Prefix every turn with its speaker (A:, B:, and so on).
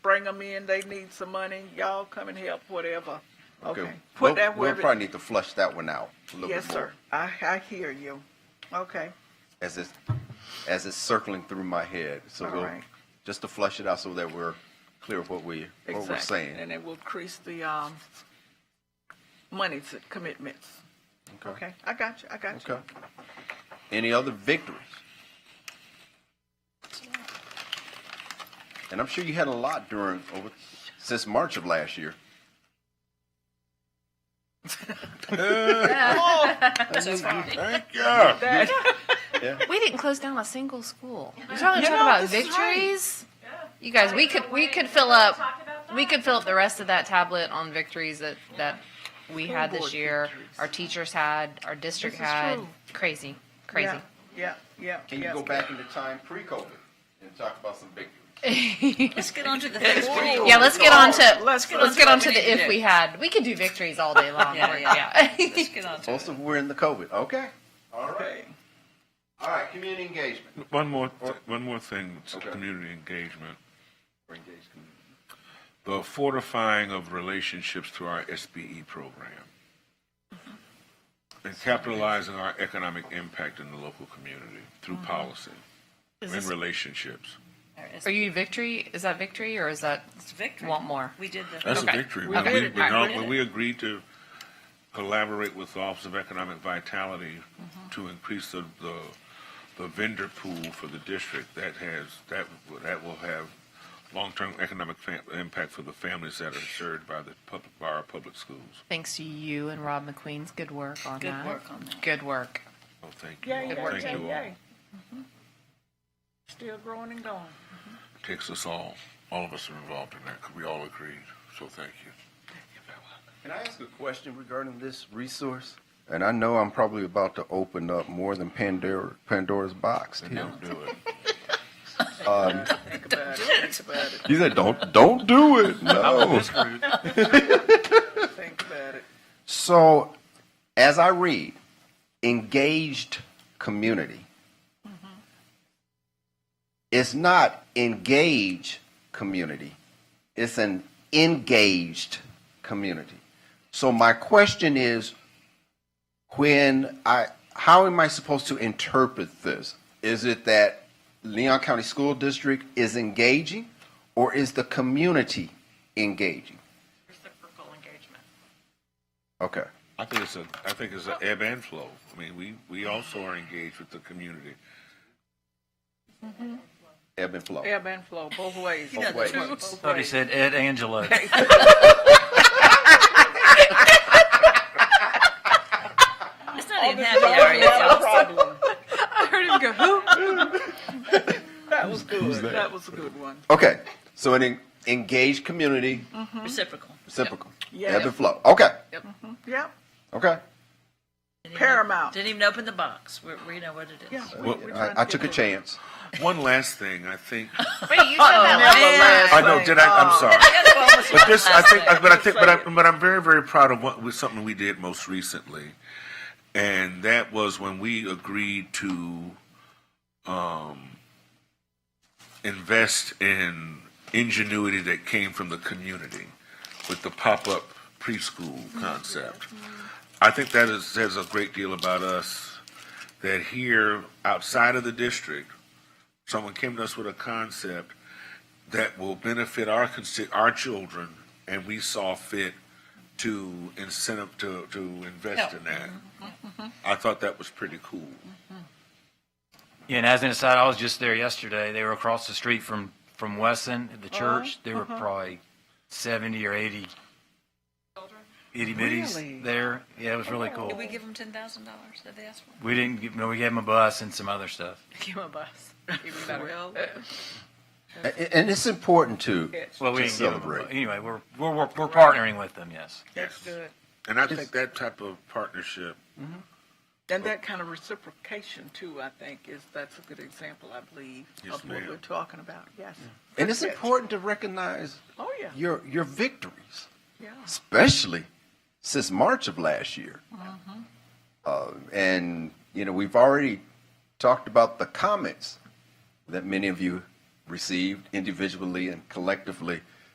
A: bring them in, they need some money, y'all come and help, whatever. Okay,
B: We'll-
A: put that
B: We'll
A: wherever.
B: probably need to flush that one out a little
A: Yes,
B: bit
A: sir,
B: more.
A: I, I hear you, okay,
B: As it's, as it's circling through my head. So
A: All
B: we'll,
A: right.
B: just to flush it out so that we're clear of what we, what we're
A: exactly.
B: saying.
A: And it will increase the, um, money to commitments, okay, I got you, I got you.
B: Okay. Any other victories? And I'm sure you had a lot during, over, since March of last year. Thank God.
C: We didn't close down a single school. You're talking,
A: You
C: talking
A: know,
C: about
A: this is right.
C: victories? You guys, we could, we could fill up, we could fill up the rest of that tablet on victories that, that we had this
A: board
C: year, our teachers had, our district
A: This is
C: had.
A: true.
C: Crazy, crazy.
A: Yeah, yeah, yeah.
B: Can you
A: yes.
B: go back into time pre-COVID and talk about some victories?
D: Let's get on to the things we need.
C: Yeah, let's get on to, let's
A: Let's get on to
C: get
A: what
C: on
A: we
C: to
A: need
C: the
A: to
C: if
A: do.
C: we had. We could do victories all day long.
D: Yeah,
C: yeah.
D: Let's get on to it.
B: Most of we're in the COVID, okay? All right,
A: Okay.
B: all right, community engagement.
E: One more, th- one more thing to
B: Okay.
E: community engagement. The fortifying of relationships through our SBE program. And capitalizing our economic impact in the local community through policy and relationships.
D: All right, it's-
C: Are you victory? Is that victory or is that
D: It's victory.
C: want more?
D: We did the.
E: That's a
C: Okay.
E: victory.
C: We
E: When
C: did
E: we,
C: it.
E: when
C: Alright,
E: all-
C: we did
E: when
C: it.
E: we agreed to collaborate with the Office of Economic Vitality
C: Mm-hmm.
E: to increase the, the, the vendor pool for the district, that has, that, will- that will have long-term economic fam- impact for the families that are served by the public, by our public schools.
C: Thanks to you and Rob McQueen's good work on
D: Good
C: that.
D: work on that.
C: Good work.
E: Oh, thank you
A: Yay,
E: all,
A: yay,
E: thank
A: yay,
E: you all.
A: yay. Mm-hmm. Still growing and going.
E: Takes us all, all of us are involved in that, 'cause we all agreed, so thank you.
B: Can I ask a question regarding this resource? And I know I'm probably about to open up more than Pandora, Pandora's box.
E: And don't do it.
A: Think about it, think about it,
B: You said, don't, don't do it, no.
A: think about it.
B: So, as I read, engaged community. It's not engage community. It's an engaged community. So my question is, when I, how am I supposed to interpret this? Is it that Leon County School District is engaging, or is the community engaging?
F: reciprocal engagement.
B: Okay.
E: I think it's a, I think it's an ebb and flow. I mean, we, we also are engaged with the community.
B: Ebb and flow.
A: Ebb and flow, both ways.
B: Both ways.
A: Both
G: Somebody
A: ways.
G: said Ed Angelo.
D: It's not even happy hour yet,
A: No
D: y'all.
A: problem.
C: I heard him go, who?
A: That was good, that was a good one.
B: Okay, so an en- engaged community,
D: Reciprocal.
B: reciprocal,
A: Yes.
B: ebb and flow. Okay,
A: Yep,
B: okay.
D: Didn't even-
A: Paramount.
D: Didn't even open the box. We, we know what it is.
A: yeah. we-
E: Well,
A: we're trying
B: I,
A: to
B: I
A: get
B: took a
A: to-
B: chance.
E: One last thing, I think.
C: Wait, you said
A: Never
C: that
A: last
E: I know.
A: thing.
E: Did I? I'm sorry.
D: The other one was
E: But this, I think,
D: last
E: but I think, but I'm, but I'm very, very proud of what was something we did most recently, and that was when we agreed to um, invest in ingenuity that came from the community with the pop-up preschool concept. I think that is says a great deal about us. That here, outside of the district, someone came to us with a concept that will benefit our consi- our children, and we saw fit to incentive to to invest in that. I thought that was pretty cool.
G: Yeah, and as an aside, I was just there yesterday. They were across the street from, from Wesson, the
D: Uh-huh.
G: church. There were probably 70 or 80 itty
A: Really?
G: bitties there. Yeah, it was really cool.
D: Oh. Did we give them ten thousand dollars? Did they ask for?
G: We didn't give, no, we gave them a bus and some other stuff.
D: Give them a bus.
A: Well,
B: A- a- And it's important too.
G: Well,
B: To
G: we didn't give 'em a bu-
B: celebrate.
G: Anyway, we're, we're, we're, we're partnering with them, yes.
A: that's good.
E: And I think that type of partnership,
A: And that kind of reciprocation too, I think, is, that's a good example, I believe,
E: Yes,
A: of what
E: ma'am.
A: we're talking about, yes.
B: And it's
A: That's it.
B: important to recognize
A: Oh, yeah,
B: your, your victories,
A: yeah.
B: especially since March of last year.
A: Mm-hmm.
B: Uh, and, you know, we've already talked about the comments that many of you received individually and collectively